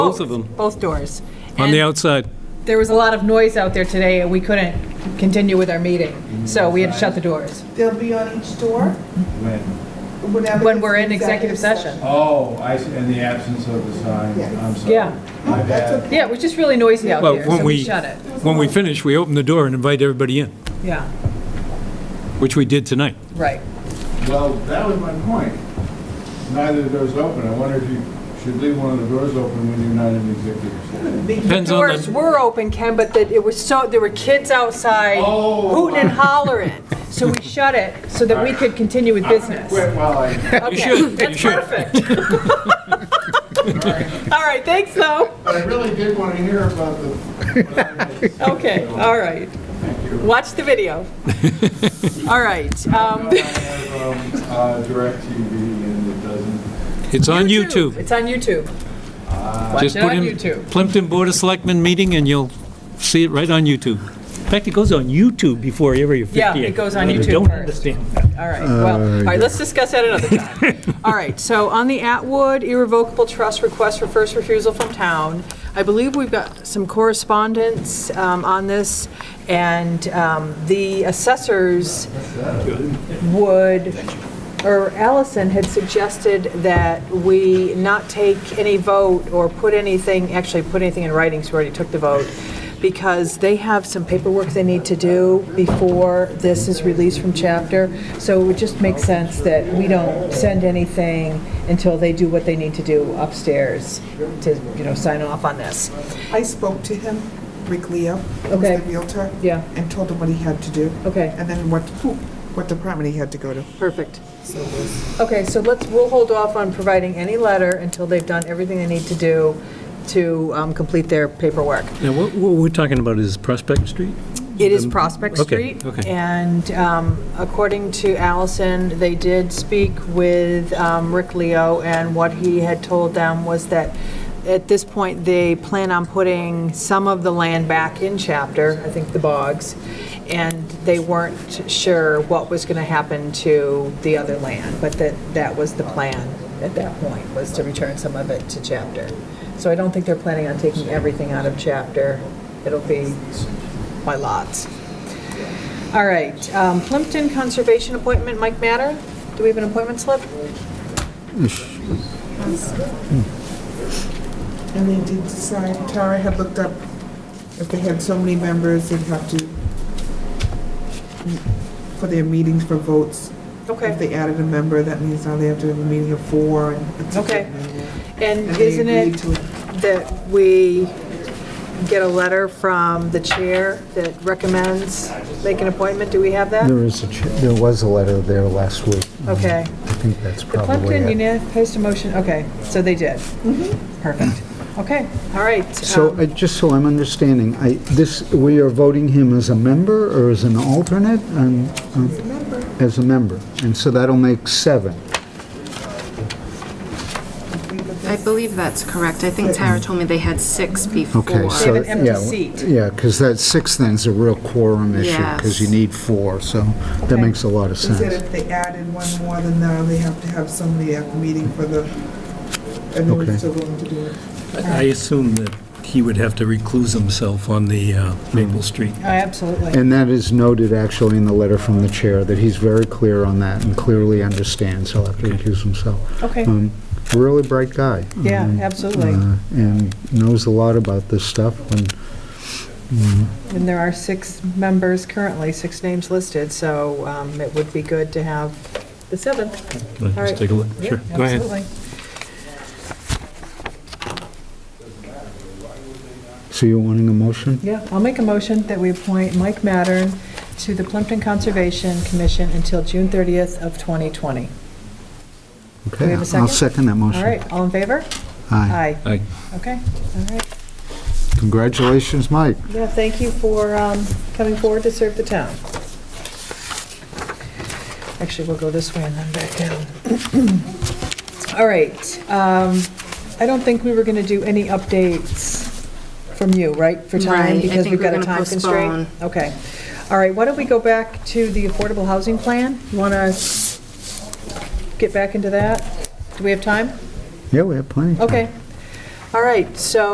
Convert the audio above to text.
Both of them. both doors. on the And outside. There was a lot of noise out there today, and we couldn't continue with our meeting, so we had to shut the doors. They'll be on each door, When? whenever. When it's we're in an executive session. Oh, I, see, in the absence of the sign, Yes. I'm sorry. Yeah. No, My that's bad. okay. Yeah, it was just really noisy out Well, there, when so we we- shut it. When we finish, we open the door and invite everybody in, Yeah, which we did tonight. right. Well, that was my point. Neither of the doors open. I wonder if you should leave one of the doors open when you're not in executive session. Depends The on doors the, were open, Ken, but that it was so, there were kids outside Oh. hooting and hollering. So we shut it so that we could continue with business. Quit while I, Okay, should, you should. That's perfect. All right, thanks though. but I really did want to hear about the. what I missed. Okay, So, all right. Thank you. Watch the video. All right. um, I have, um, uh, DirecTV and it doesn't, it's on YouTube. It's on YouTube. Just it put on in YouTube. Plimpton Board of Selectmen meeting and you'll see it right on YouTube. In fact, it goes on YouTube before Area 58. Yeah, it goes on I YouTube don't first. understand. All right, well, all right, let's discuss that another time. All right, so on the Atwood irrevocable trust request for first refusal from town, I believe we've got some correspondence um, on this, and um, the assessors would, or Allison had suggested that we not take any vote or put anything, actually put anything in writing, so we already took the vote, because they have some paperwork they need to do before this is released from chapter. So it would just make sense that we don't send anything until they do what they need to do upstairs to, you know, sign off on this. I spoke to him, Rick Leo, who's Okay. the Realtor. Yeah. And told him what he had to do. Okay. And then what, what department he had to go to. Perfect. Okay, so let's, we'll hold off on providing any letter until they've done everything they need to do to um, complete their paperwork. Now, what, what we're talking about is Prospect Street? It is Prospect Okay, Street. okay. And um, according to Allison, they did speak with um, Rick Leo, and what he had told them was that at this point, they plan on putting some of the land back in chapter, I think the bogs, and they weren't sure what was going to happen to the other land, but that, that was the plan at that point, was to return some of it to chapter. So I don't think they're planning on taking everything out of chapter. It'll be by lots. All right, um, Plimpton Conservation Appointment, Mike Matter, do we have an appointment slip? And they did decide, Tara had looked up if they had so many members, they'd have to, for their meetings for votes. If Okay, they added a member, that means now they have to have a meeting of four and. it's a Okay. commitment. and And they isn't agreed it to that we get a letter from the chair that recommends make an appointment? Do we have that? There is, a ch- there was a letter there last week. Okay. I think that's The probably Plimpton it. Union Post a motion, okay, so they did. Perfect. Okay, all right. So, um, I- just so I'm understanding, I, this, we are voting him as a member or as an alternate? Um, um, As a member. And so that'll make seven. I believe that's correct. I think Tara told me they had six before. Okay, so, have yeah. an empty seat. Yeah, because that six then's a real quorum issue, because you Yes. need four, so that Okay. makes a lot of They said sense. if they added one more, then now they have to have somebody at the meeting for the, and they were Okay. still willing to do it. I assume that he would have to recluse himself on the uh, Maple Street. oh, Absolutely. And that is noted actually in the letter from the chair, that he's very clear on that and clearly understands, he'll have to recuse himself. Okay, Um, Really bright guy. yeah, Um, absolutely. uh, and knows a lot about this stuff, and And there are six members currently, six names listed, so um, it would be good to have the seventh. All right. Let's take a look. Sure, go ahead. Absolutely. so you're wanting a motion? Yeah, I'll make a motion that we appoint Mike Mattern to the Plimpton Conservation Commission until June 30th of 2020. we Okay, have a I'll second? second that motion. All right, all in favor? Aye. Aye. Aye. Okay, all right. Congratulations, Mike. Yeah, thank you for um, coming forward to serve the town. Actually, we'll go this way and then back down. All right, um, I don't think we were going to do any updates from you, right, for time? Right, I Because think we've got we're a gonna time constraint? Okay. All right, why don't we go back to the affordable housing plan? You want to get back into that? Do we have time? Yeah, we have plenty. Okay. All right, so